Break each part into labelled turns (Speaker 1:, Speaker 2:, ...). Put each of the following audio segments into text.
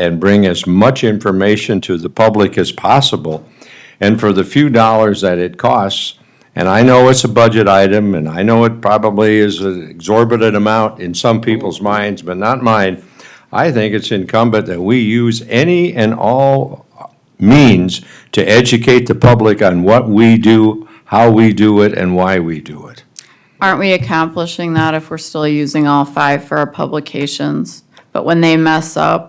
Speaker 1: and bring as much information to the public as possible. And for the few dollars that it costs, and I know it's a budget item, and I know it probably is an exorbitant amount in some people's minds, but not mine, I think it's incumbent that we use any and all means to educate the public on what we do, how we do it, and why we do it.
Speaker 2: Aren't we accomplishing that if we're still using all five for our publications? But when they mess up,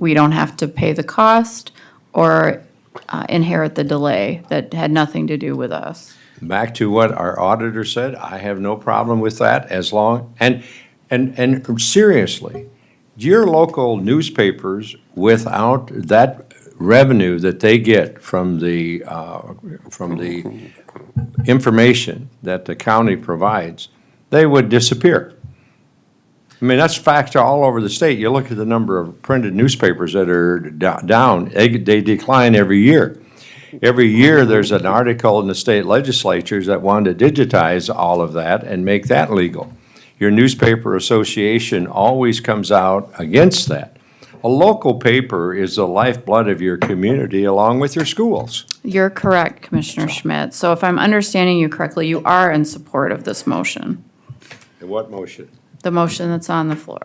Speaker 2: we don't have to pay the cost or uh, inherit the delay that had nothing to do with us.
Speaker 1: Back to what our auditor said, I have no problem with that as long, and, and, and seriously, your local newspapers, without that revenue that they get from the, uh, from the information that the county provides, they would disappear. I mean, that's fact all over the state. You look at the number of printed newspapers that are do- down, they, they decline every year. Every year, there's an article in the state legislatures that want to digitize all of that and make that legal. Your newspaper association always comes out against that. A local paper is the lifeblood of your community along with your schools.
Speaker 2: You're correct, Commissioner Schmidt. So if I'm understanding you correctly, you are in support of this motion,
Speaker 1: And what motion?
Speaker 2: the motion that's on the floor.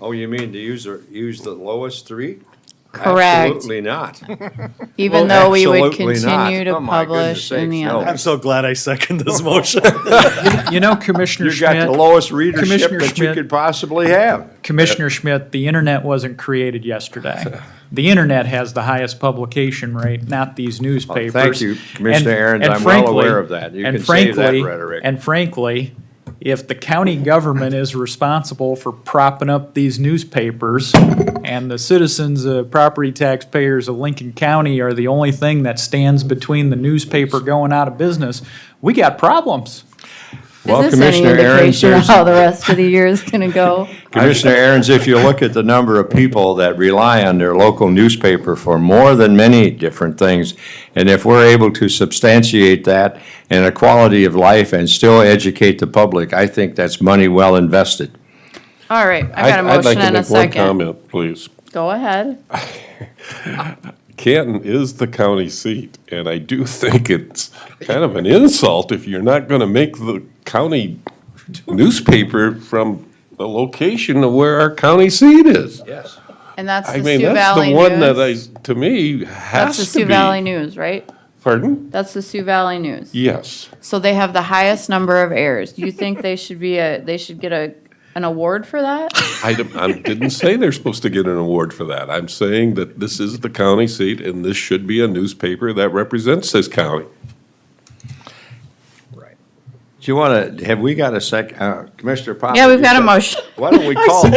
Speaker 1: Oh, you mean to use, the- use the lowest three?
Speaker 2: Correct.
Speaker 1: Absolutely not.
Speaker 2: Even
Speaker 1: Well,
Speaker 2: though we would
Speaker 1: absolutely not.
Speaker 2: continue to
Speaker 1: Oh, my goodness
Speaker 2: publish in the
Speaker 1: sakes, no.
Speaker 2: other.
Speaker 3: I'm so glad I second this motion.
Speaker 4: You know, Commissioner
Speaker 1: You got the
Speaker 4: Schmidt,
Speaker 1: lowest readership
Speaker 4: Commissioner
Speaker 1: that you
Speaker 4: Schmidt.
Speaker 1: could possibly have.
Speaker 4: Commissioner Schmidt, the internet wasn't created yesterday. The internet has the highest publication rate, not these newspapers.
Speaker 1: you,
Speaker 4: And-
Speaker 1: Commissioner Aaron's.
Speaker 4: and
Speaker 1: I'm well
Speaker 4: frankly-
Speaker 1: aware of that. You
Speaker 4: and
Speaker 1: can save that
Speaker 4: frankly-
Speaker 1: rhetoric.
Speaker 4: And frankly, if the county government is responsible for propping up these newspapers and the citizens, uh, property taxpayers of Lincoln County are the only thing that stands between the newspaper going out of business, we got problems.
Speaker 1: Well,
Speaker 2: Is this any
Speaker 1: Commissioner Aaron's,
Speaker 2: indication of
Speaker 1: there's-
Speaker 2: how the rest of the year is going to go?
Speaker 1: Commissioner Aaron's, if you look at the number of people that rely on their local newspaper for more than many different things, and if we're able to substantiate that in a quality of life and still educate the public, I think that's money well invested.
Speaker 2: All right, I got a
Speaker 5: I'd- I'd like
Speaker 2: motion
Speaker 5: to
Speaker 2: and a
Speaker 5: make one
Speaker 2: second.
Speaker 5: Comment, please.
Speaker 2: Go ahead.
Speaker 5: Canton is the county seat, and I do think it's kind of an insult if you're not gonna make the county newspaper from the location of where our county seat is.
Speaker 1: Yes.
Speaker 2: And that's
Speaker 5: I
Speaker 2: the
Speaker 5: mean,
Speaker 2: Sioux
Speaker 5: that's
Speaker 2: Valley
Speaker 5: the one that I,
Speaker 2: News.
Speaker 5: to me,
Speaker 2: That's the
Speaker 5: has to
Speaker 2: Sioux Valley
Speaker 5: be.
Speaker 2: News, right?
Speaker 5: Pardon?
Speaker 2: That's the Sioux Valley News.
Speaker 5: Yes.
Speaker 2: So they have the highest number of errors. Do you think they should be a, they should get a, an award for that?
Speaker 5: I d- I didn't say they're supposed to get an award for that. I'm saying that this is the county seat, and this should be a newspaper that represents this county.
Speaker 1: Do you want to, have we got a sec, uh, Commissioner Poppins?
Speaker 2: Yeah, we've got a motion.
Speaker 1: Why don't we call,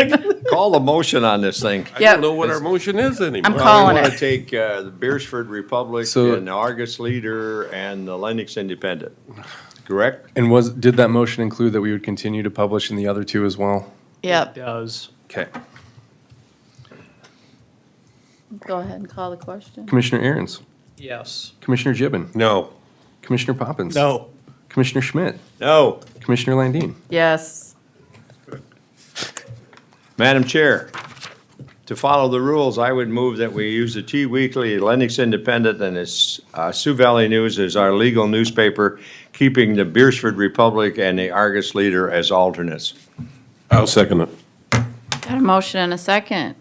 Speaker 1: call the motion on this thing?
Speaker 5: I
Speaker 2: Yep.
Speaker 5: don't know what our motion is anymore.
Speaker 2: calling
Speaker 1: We want to
Speaker 2: it.
Speaker 1: take uh, the Beersford Republic
Speaker 6: So-
Speaker 1: and the Argus Leader and the Lennox Independent, correct?
Speaker 6: And was, did that motion include that we would continue to publish in the other two as well?
Speaker 2: Yep,
Speaker 4: Does.
Speaker 6: Okay.
Speaker 2: go ahead and call the question.
Speaker 6: Commissioner Aaron's,
Speaker 4: Yes.
Speaker 6: Commissioner Gibbon,
Speaker 5: No.
Speaker 6: Commissioner Poppins.
Speaker 3: No,
Speaker 6: Commissioner Schmidt,
Speaker 1: No.
Speaker 6: Commissioner Landine.
Speaker 2: Yes.
Speaker 1: Madam Chair, to follow the rules, I would move that we use the T Weekly, Lennox Independent, and the uh, Sioux Valley News as our legal newspaper, keeping the Beersford Republic and the Argus Leader as alternates.
Speaker 5: I'll second it.
Speaker 2: Got a motion and a second.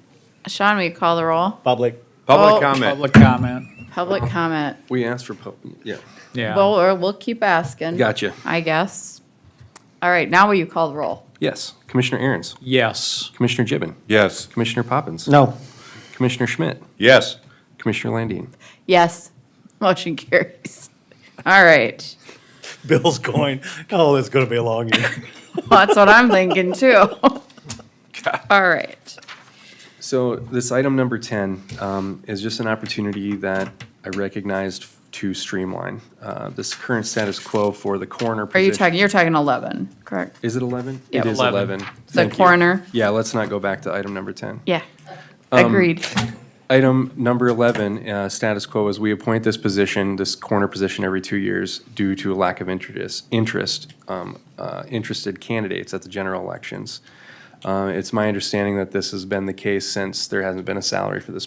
Speaker 2: Sean, will you call the roll?
Speaker 3: public.
Speaker 2: Oh.
Speaker 1: Public comment.
Speaker 4: Public comment,
Speaker 2: Public comment.
Speaker 6: We asked for, pub- yeah,
Speaker 4: yeah.
Speaker 2: Well, or we'll keep asking.
Speaker 6: Gotcha.
Speaker 2: I guess. All right, now will you call the roll?
Speaker 6: yes. Commissioner Aaron's,
Speaker 4: Yes.
Speaker 6: Commissioner Gibbon,
Speaker 5: Yes.
Speaker 6: Commissioner Poppins.
Speaker 3: No.
Speaker 6: Commissioner Schmidt,
Speaker 1: Yes.
Speaker 6: Commissioner Landine.
Speaker 2: Yes. Motion carries. All right.
Speaker 3: Bill's going, oh, it's going to be a long year.
Speaker 2: Well, that's what I'm thinking too. All right.
Speaker 6: So this item number 10 um, is just an opportunity that I recognized to streamline uh, this current status quo for the coroner
Speaker 2: Are
Speaker 6: position.
Speaker 2: you talking, you're talking 11, correct?
Speaker 6: Is it 11?
Speaker 2: Yeah.
Speaker 6: It is
Speaker 4: 11.
Speaker 6: 11.
Speaker 2: The
Speaker 6: Thank you.
Speaker 2: coroner.
Speaker 6: Yeah, let's not go back to item number 10.
Speaker 2: Yeah. Agreed.
Speaker 6: Item number 11, uh, status quo, is we appoint this position, this corner position, every two years due to a lack of interest, interest, um, uh, interested candidates at the general elections. Uh, It's my understanding that this has been the case since there hasn't been a salary for this